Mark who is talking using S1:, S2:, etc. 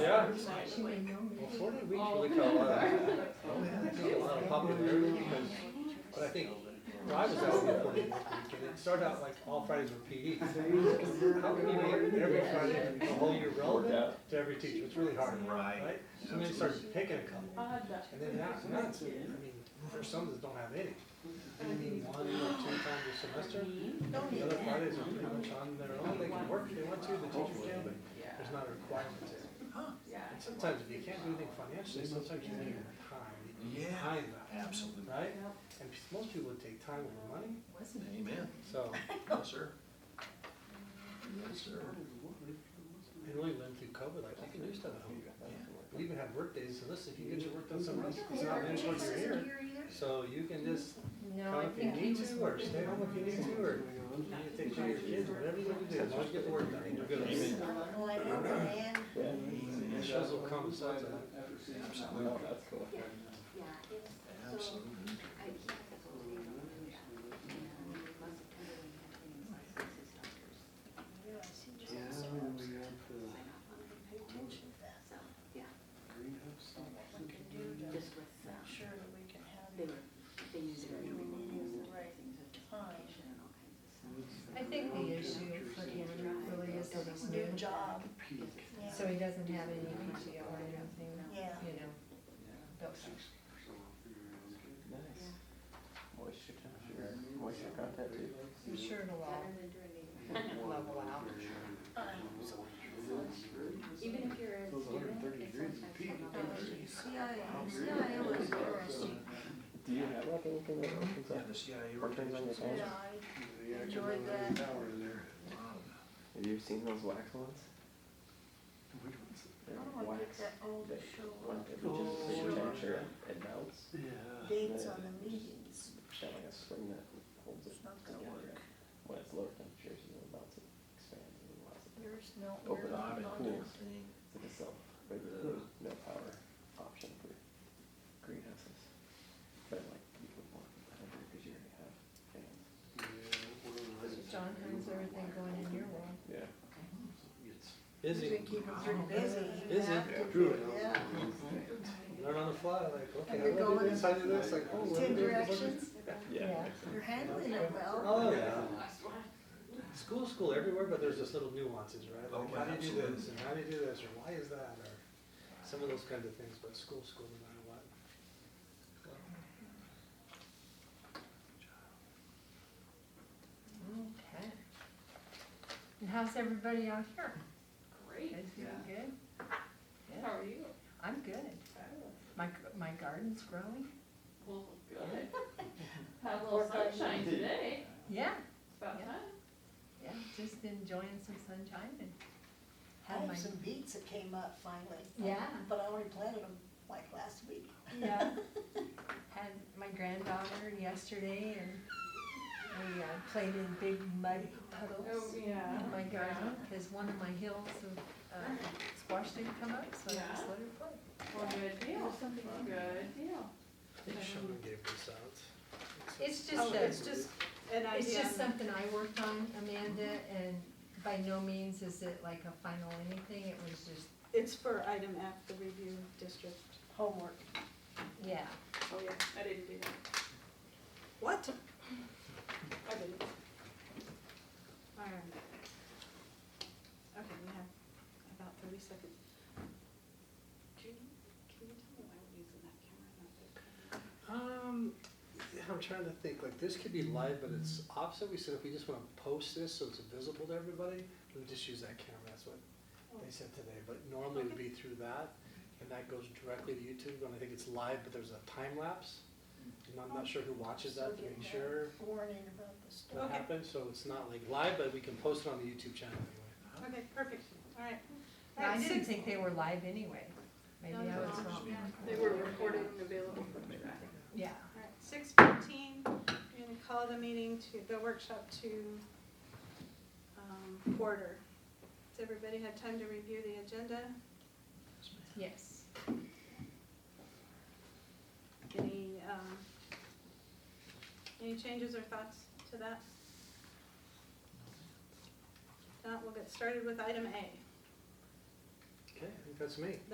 S1: I'm
S2: sorry.
S1: She may know me.
S3: Well, forty weeks
S2: All
S3: really
S2: of
S3: got a lot of,
S2: them.
S3: got a lot of popularity because, but I think, when I was out there forty weeks, and it started out like all Fridays were PE. How can you make every Friday the whole year relevant to every teacher? It's really hard, right? So then you start picking a couple, and then now, now it's, I mean, there's some that don't have any. Maybe one or two times a semester, the other Fridays are pretty much on their own, they can work if they want to, the teacher can, but there's not a requirement to. And sometimes if you can't do anything financially, sometimes you need your time, you need
S4: Yeah.
S3: time back,
S4: Absolutely.
S3: right? And p- most people would take time over money,
S1: Wasn't it?
S4: Amen.
S3: so
S4: Yes, sir. Yes, sir.
S3: they really lived through COVID, like you can do stuff at home.
S4: Yeah.
S3: We even had work days, so listen, if you get your work done somewhere else, it's not finished while you're here. So you can just
S1: No,
S3: come
S1: I
S3: if you
S1: think he
S3: need
S1: was.
S3: to, or stay home if you need to, or you need to take care of your kids, whatever you want to do, as long as you get the work done, you're good.
S4: Amen.
S3: And the shows will come, so it's a-
S4: Absolutely.
S5: Yeah, it's, so,
S4: Absolutely.
S5: I can't totally remember that. And it must have come when he had things like his doctors. Why not want to pay attention to that? So, yeah, just with, uh, they were, they used their. And all kinds of stuff.
S1: I think the issue for him really is that he's new, so he doesn't have any PTO or anything,
S2: Yeah.
S1: you know. But
S6: What's your temperature? What's your contact too?
S1: I'm sure it'll all
S5: Better than doing anything.
S1: level out.
S5: Even if you're a student, it's sometimes.
S2: degrees.
S6: Do you have like anything that opens
S4: Yeah,
S6: up
S4: the CIA.
S6: or turns on your phone?
S2: Enjoyed that.
S4: Wow.
S6: Have you seen those wax ones? They're like wax. They one that you just put your
S2: Oh.
S6: temperature and it melts.
S2: Dates on the meetings.
S6: It's got like a spring that holds it
S2: It's not gonna
S6: together.
S2: work.
S6: When it's lower temperatures, you know, it melts and expands and allows it.
S2: There's no.
S6: Open
S2: we're
S6: up
S2: not
S6: and
S2: on
S6: cool.
S2: this.
S6: It's like a self-regulating, no power option for greenhouses. But like you would want hundred because you already have fans.
S1: John, how's everything going in your world?
S6: Yeah.
S3: busy,
S2: We keep them pretty busy. You
S3: Busy.
S2: have to be-
S3: Truly.
S2: Yeah.
S3: learn on the fly, like, okay,
S2: And
S3: I
S2: you're
S3: want to
S2: going
S3: do this, I do this, like, oh. what do I
S2: Ten
S3: do?
S2: directions.
S1: Yeah.
S2: You're handling it well.
S3: Oh, yeah. School, school everywhere, but there's just little nuances, right?
S4: Oh,
S3: Like, how do you do
S4: absolutely.
S3: this, and how do you do this, or why is that, or some of those kinds of things, but school, school, no matter what.
S1: Okay. And how's everybody out here? Great. Guys doing good? Good.
S2: How are you?
S1: I'm good. My, g- my garden's growing.
S7: Well, good. Had a little sunshine today,
S1: Yeah,
S7: it's about
S1: Yeah.
S7: time.
S1: yeah, just enjoying some sunshine and
S2: I
S1: had my.
S2: have Oh, some beets that came up finally.
S1: Yeah.
S2: But I already planted them like last week.
S1: Yeah. Had my granddaughter yesterday and we uh, played in big mud
S8: Oh,
S1: puddles
S7: yeah.
S1: in my garden because one of my hills of uh, squash didn't come up, so I just let her play.
S7: Well, good deal, good deal.
S3: I
S2: Uh-huh.
S3: think Sean gave this out.
S1: It's just, a- Oh, it's just, it's just something I worked on, Amanda, and by no means is it like a final anything, it was just,
S8: It's for item F, the review district homework.
S1: yeah.
S7: Oh, yeah, I didn't do that.
S8: What?
S7: I didn't.
S8: Alright. Okay, we have about thirty seconds. Can you, can you tell me why we're using that camera, and not the camera?
S3: Um, yeah, I'm trying to think, like, this could be live, but it's opposite, we said if we just wanna post this so it's visible to everybody, we just use that camera, that's what they said today, but normally it'd be through that, and that goes directly to YouTube, and I think it's live, but there's a time lapse. And I'm not sure who watches that, to make sure
S2: Warning about the storm.
S3: what
S8: Okay.
S3: happened, so it's not like live, but we can post it on the YouTube channel anyway.
S8: Okay, perfect, alright.
S1: No, I
S8: Alright,
S1: didn't
S8: six-
S1: think they were live anyway, maybe I was wrong,
S7: They were recorded and available for playback.
S1: yeah.
S8: Alright, six fifteen, we're gonna call the meeting to, the workshop to, um, order. Has everybody had time to review the agenda?
S1: Yes.
S8: Any, um, any changes or thoughts to that? If Not, we'll get started with item A.
S3: Okay, I think that's me.